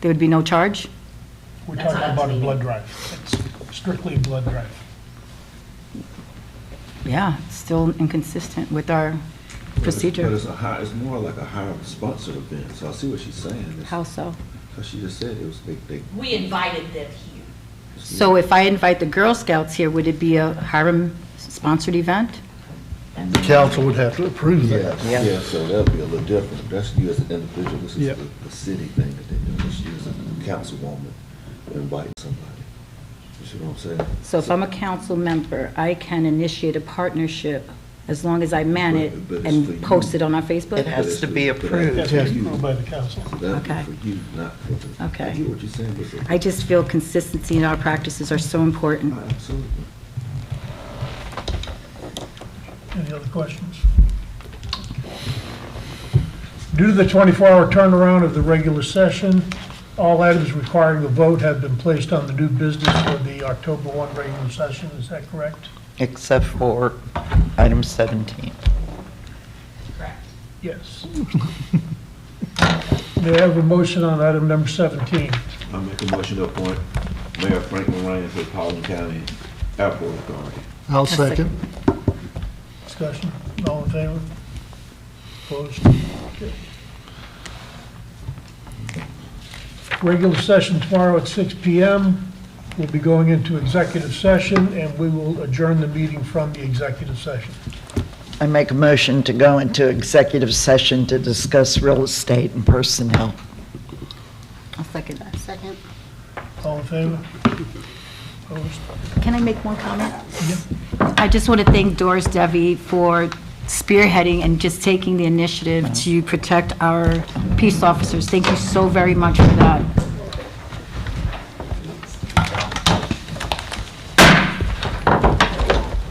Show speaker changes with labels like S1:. S1: There would be no charge?
S2: We're
S3: That's
S2: talking
S3: not
S2: about a
S3: meeting.
S2: blood drive. It's strictly a blood drive.
S1: Yeah, it's still inconsistent with our
S4: But
S1: procedure.
S4: it's a high, it's more like a higher sponsored event, so I see what she's saying.
S1: How so?
S4: Because she just said it was big, big.
S3: We invited them here.
S1: So if I invite the Girl Scouts here, would it be a Hiram-sponsored event?
S5: The council would have to approve that.
S4: Yeah, so that'll be a little different. That's you as an individual, this is
S5: Yep.
S4: the, the city thing that they do. This is a councilwoman inviting somebody. You see what I'm saying?
S1: So if I'm a council member, I can initiate a partnership as long as I man it
S4: But- but it's for you.
S1: and post it on our Facebook?
S6: It has to be approved.
S2: That's approved by the council.
S4: That'd be
S1: Okay.
S4: for you, not for the.
S1: Okay.
S4: I get what you're saying, but. it's-
S1: I just feel consistency in our practices are so important.
S4: Absolutely.
S2: Any other questions? Due to the 24-hour turnaround of the regular session, all items requiring a vote have been placed on the new business for the October 1 regular session. Is that correct?
S6: Except for item 17.
S3: Correct.
S2: Yes. May I have a motion on item number 17?
S4: I make a motion to appoint Mayor Franklin Ryan to the Paulding County Airport Authority.
S5: I'll
S1: second.
S5: second.
S2: Discussion, all in favor? Opposed? Okay. Regular session tomorrow at 6 PM. We'll be going into executive session, and we will adjourn the meeting from the executive session.
S6: I make a motion to go into executive session to discuss real estate and personnel.
S1: I'll second that. Second.
S2: All in favor? Opposed?
S1: Can I make one comment? I just want to thank Doris Devi for spearheading and just taking the initiative to protect our peace officers. Thank you so very much for that.